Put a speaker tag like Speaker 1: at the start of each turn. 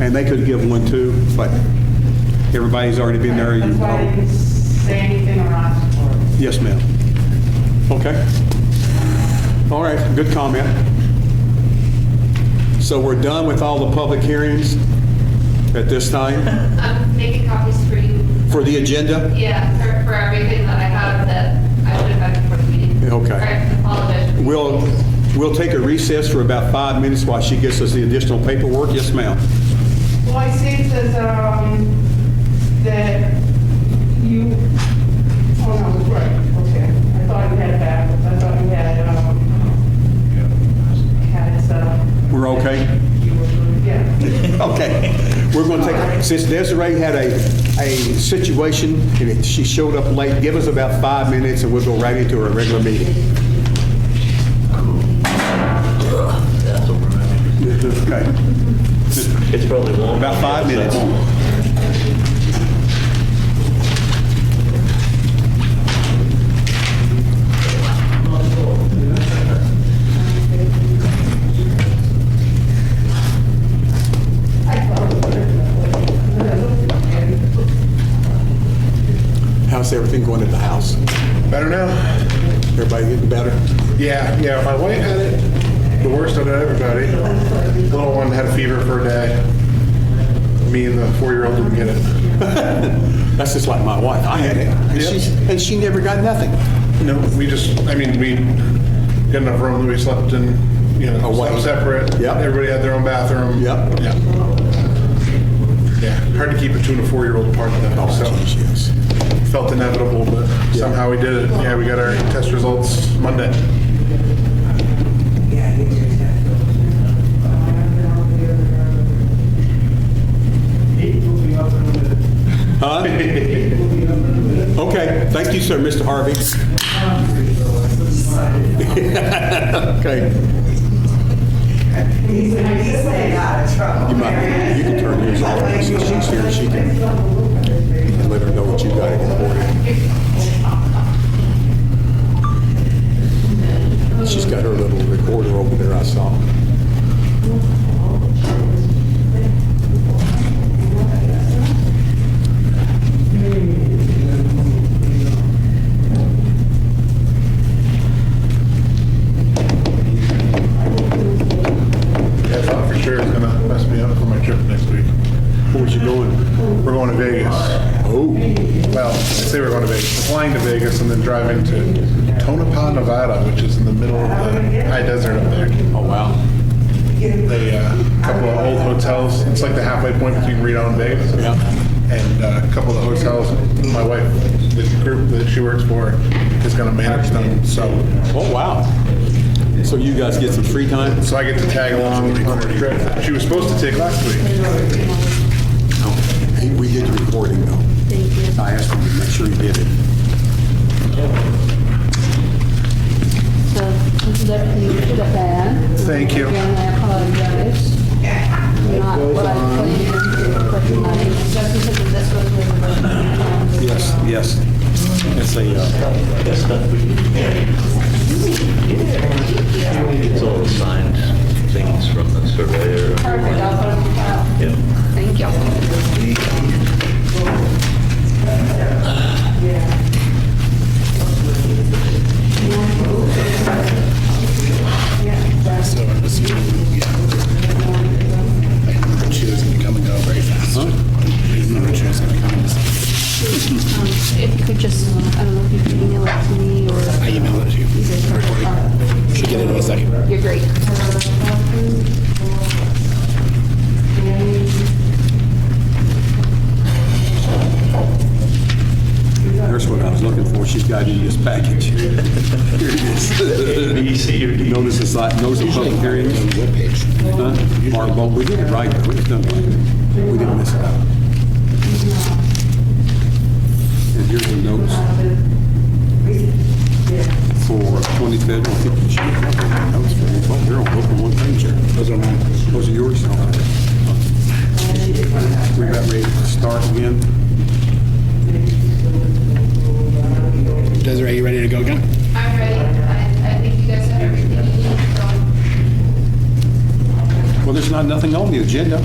Speaker 1: And they could give one too, but everybody's already been there.
Speaker 2: That's why I didn't say anything on Oxford.
Speaker 1: Yes, ma'am. Okay. All right, good comment. So we're done with all the public hearings at this time
Speaker 3: I'm making copies for you.
Speaker 1: for the agenda?
Speaker 3: Yeah, for, for everything that I have that I would have had before the meeting.
Speaker 1: Okay.
Speaker 3: I apologize.
Speaker 1: We'll, we'll take a recess for about five minutes while she gets us the additional paperwork. Yes, ma'am.
Speaker 2: Well, I see it says, um, that you, oh, no, it's right, okay. I thought we had it backwards, I thought we had, um, had it set up.
Speaker 1: We're okay?
Speaker 2: You were, yeah.
Speaker 1: Okay, we're going to take, since Desiree had a, a situation, and it- she showed up late, give us about five minutes, and we'll go right into our regular meeting. Okay,
Speaker 4: It's probably long.
Speaker 1: about five minutes. How's everything going at the house?
Speaker 5: Better now?
Speaker 1: Everybody getting better?
Speaker 5: Yeah, yeah, my wife had it, the worst of it, everybody. Little one had a fever for a day. Me and the four-year-old didn't get it.
Speaker 1: That's just like my wife, I had it, and she's, and she never got nothing.
Speaker 5: No, we just, I mean, we got enough room that we slept in, you know,
Speaker 1: Away.
Speaker 5: slept separate.
Speaker 1: Yep.
Speaker 5: Everybody had their own bathroom.
Speaker 1: Yep.
Speaker 5: Yeah. Yeah, hard to keep a two and a four-year-old apart though, so
Speaker 1: Oh, yes.
Speaker 5: felt inevitable, but somehow we did it. Yeah, we got our test results Monday.
Speaker 1: Huh? Okay, thank you, sir, Mr. Harvey. Okay.
Speaker 2: uh,
Speaker 1: You might, you can turn yours off, since she's here, she can you can let her know what you got in the morning. She's got her little recorder over there, I saw.
Speaker 5: Yeah, I thought for sure it was gonna mess me up for my trip next week.
Speaker 1: Where's you going?
Speaker 5: We're going to Vegas.
Speaker 1: Oh,
Speaker 5: Well, I say we're going to Vegas, We're flying to Vegas and then driving to Tonopah, Nevada, which is in the middle of the high desert up there.
Speaker 1: oh, wow.
Speaker 5: They, uh, a couple of old hotels, it's like the halfway point between Reno and Vegas.
Speaker 1: Yeah.
Speaker 5: And uh, a couple of the hotels, my wife, the group that she works for is going to manage them, so,
Speaker 1: Oh, wow. So you guys get some free time?
Speaker 5: so I get to tag along on her trip that she was supposed to take last week.
Speaker 1: Hey, We did the recording, though. Thank you. I asked him to make sure he did it.
Speaker 6: So, definitely put a ban.
Speaker 5: Thank you.
Speaker 6: Again, I apologize. Not what I planned, but I just because this was the.
Speaker 1: Yes, yes. It's a, uh,
Speaker 4: It's all signed things from the surveyor.
Speaker 6: Perfect, I'll put it on file.
Speaker 4: Yeah.
Speaker 6: Thank you.
Speaker 7: She was going to come and go very fast. I didn't know she was going to come.
Speaker 6: If you could just, I don't know if you could email it to me or. uh,
Speaker 7: I emailed it to you. Should get it in a second.
Speaker 6: You're great.
Speaker 1: there's what I was looking for. She's got it in this package. Here it is.
Speaker 4: B, C, or D.
Speaker 1: Notice it's like, notice of public hearings.
Speaker 7: Webpage.
Speaker 1: Huh? Mark, well, we did it right, though. We just done it right. We didn't miss it out. And here's the notes for 25th. I think you should have the notes for each one. They're on open one page here. Those are mine. Those are yours? Okay. We about ready to start again.
Speaker 7: Desiree, you ready to go again?
Speaker 3: I'm ready. I, I think you guys have everything you need from
Speaker 1: Well, there's not, nothing on the agenda.